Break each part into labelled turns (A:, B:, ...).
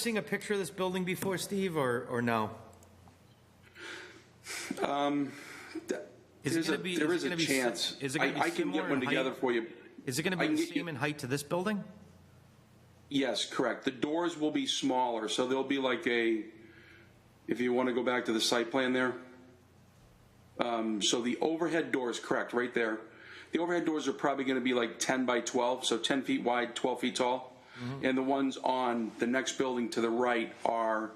A: Seen a picture of this building before, Steve, or, or no? Is it
B: Um, There's a,
A: gonna be-
B: there
A: is it
B: is a
A: gonna be si-
B: chance.
A: is it gonna
B: I-
A: be
B: I can
A: similar
B: get one
A: in height?
B: together for you.
A: Is it going
B: I
A: to be
B: can
A: the
B: get you-
A: same in height to this building?
B: Yes, correct. The doors will be smaller, so there'll be like a, if you want to go back to the site plan there. Um, so the overhead doors, correct, right there. The overhead doors are probably going to be like 10 by 12, so 10 feet wide, 12 feet tall. And the ones on the next building to the right are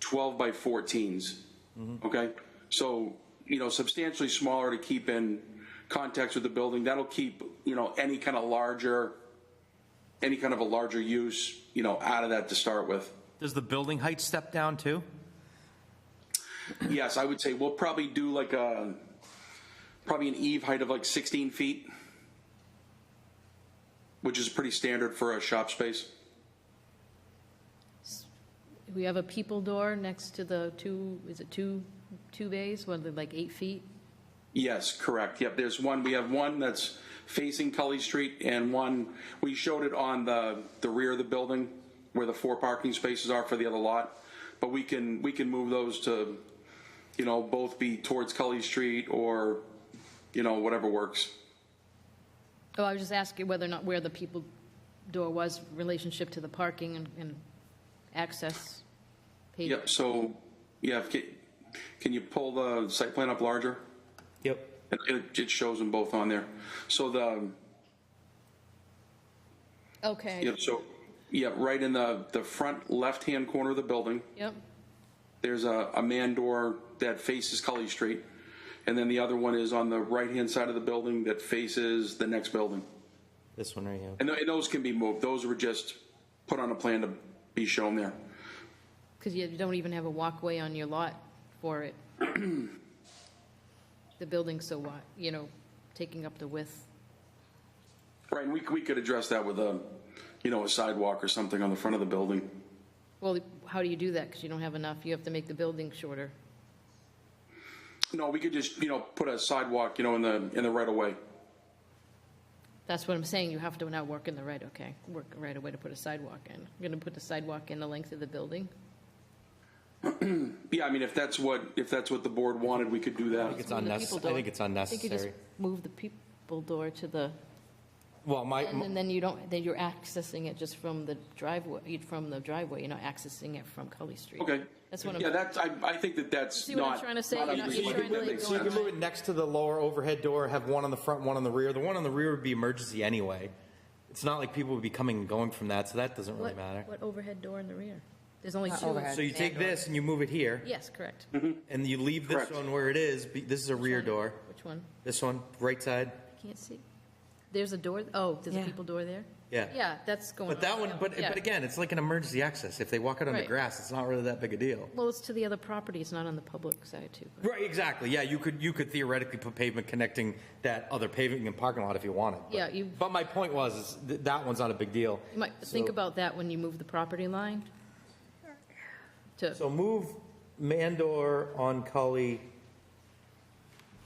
B: 12 by 14s. Okay? So, you know, substantially smaller to keep in context with the building. That'll keep, you know, any kind of larger any kind of a larger use, you know, out of that to start with.
A: Does the building height step down too?
B: Yes, I would say we'll probably do like a, probably an eve height of like 16 feet, which is pretty standard for a shop space.
C: We have a people door next to the two, is it two, two bays, what, they're like eight feet?
B: Yes, correct. Yep, there's one, we have one that's facing Cully Street and one, we showed it on the, the rear of the building where the four parking spaces are for the other lot. But we can, we can move those to, you know, both be towards Cully Street or, you know, whatever works.
C: Oh, I was just asking whether or not where the people door was in relationship to the parking and, and access. page.
B: Yep, so, yeah, if- can- can you pull the site plan up larger?
A: Yep.
B: It- It it shows them both on there. So the,
C: Okay,
B: yeah, so, yeah, right in the, the front left-hand corner of the building,
C: yep,
B: there's a, a man door that faces Cully Street. And then the other one is on the right-hand side of the building that faces the next building.
A: This one right here.
B: And tho- and those can be moved. Those were just put on a plan to be shown there.
C: because you don't even have a walkway on your lot for it. The building's so wide, you know, taking up the width.
B: Right, and we, c- we could address that with a, you know, a sidewalk or something on the front of the building.
C: Well, how do you do that? Because you don't have enough, you have to make the building shorter.
B: No, we could just, you know, put a sidewalk, you know, in the, in the right of way.
C: That's what I'm saying, you have to now work in the right, okay, work right away to put a sidewalk in. You're gonna put the sidewalk in the length of the building?
B: Yeah, I mean, if that's what, if that's what the board wanted, we could do
A: It's
B: that.
C: Move the people
A: unnecessary. I
C: door.
A: think it's
C: I think you
A: unnecessary.
C: just move the people door to the,
A: Well, my,
C: and then- then you don't, then you're accessing it just from the driveway, from the driveway, you're not accessing it from Cully Street.
B: Okay.
C: That's what I'm-
B: Yeah, that's, I, I think that that's
C: See what I'm
B: not.
C: trying to say?
B: not
C: You're not- you're
B: unreasonable.
C: trying to,
B: That
C: like,
B: makes
C: go
A: so you
B: sense.
A: can move it next to the lower overhead door, have one on the front, one on the rear. The one on the rear would be emergency anyway. It's not like people would be coming and going from that, so that doesn't really
C: What,
A: matter.
C: what overhead door in the rear? There's only two.
A: So you take this Mm-hmm. and you move it here,
C: Yes, correct.
A: and you leave this
B: Correct.
A: one where it is. be- This is a rear door.
C: Which one?
A: This one, right side.
C: I can't see. There's a door, oh, there's a
D: Yeah.
C: people door there?
A: Yeah.
C: Yeah, that's going on.
A: But that one,
C: now.
A: but,
C: Yeah.
A: but again, it's like an emergency access. If they walk out on the
C: Right.
A: grass, it's not really that big a deal.
C: Well, it's to the other property, it's not on the public side too.
A: Right, exactly. Yeah, you could, you could theoretically put pavement connecting that other paving and parking lot if you wanted. but-
C: Yeah, you-
A: But my point was, is th- that one's not a big deal.
C: You might think
A: So-
C: about that when you move the property line to,
A: So move Mandor on Cully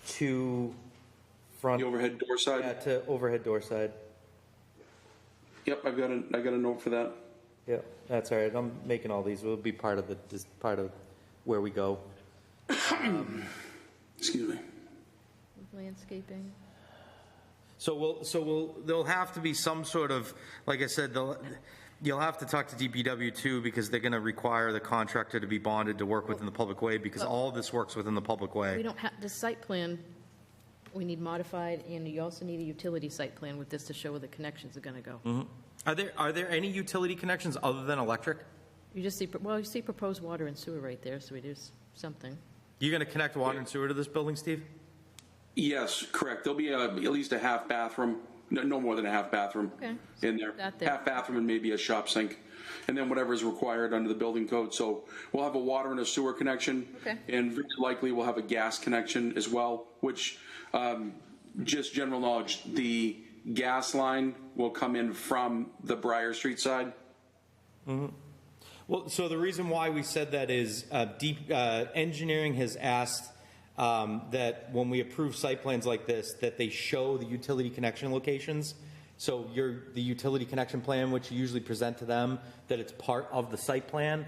A: to front,
B: The overhead door
A: yeah,
B: side.
A: to overhead door side.
B: Yep, I've got a, I got a note for that.
A: Yeah, that's all right. I'm making all these. It'll be part of the, this part of where we go.
B: Excuse me.
C: landscaping.
A: So we'll, so we'll, there'll have to be some sort of, like I said, they'll- you'll have to talk to DPW too, because they're gonna require the contractor to be bonded to work within the public way, because all of this works within the public
C: We
A: way.
C: don't have, the site plan, we need modified, and you also need a utility site plan with this to show where the connections are gonna go.
A: Mm-hmm. Are there, are there any utility connections other than electric?
C: You just see, pro- well, you see proposed water and sewer right there, so it is something.
A: You gonna connect water and sewer to this building, Steve?
B: Yes, correct. There'll be a, at least a half bathroom, no, no more than a half bathroom
C: Okay.
B: in there.
C: That there.
B: Half bathroom and maybe a shop sink. And then whatever is required under the building code. So we'll have a water and a sewer connection.
C: Okay.
B: And very likely we'll have a gas connection as well, which, um, just general knowledge, the gas line will come in from the Briar Street side.
A: Well, so the reason why we said that is uh, deep uh, engineering has asked um, that when we approve site plans like this, that they show the utility connection locations So your, the utility connection plan, which you usually present to them, that it's part of the site plan,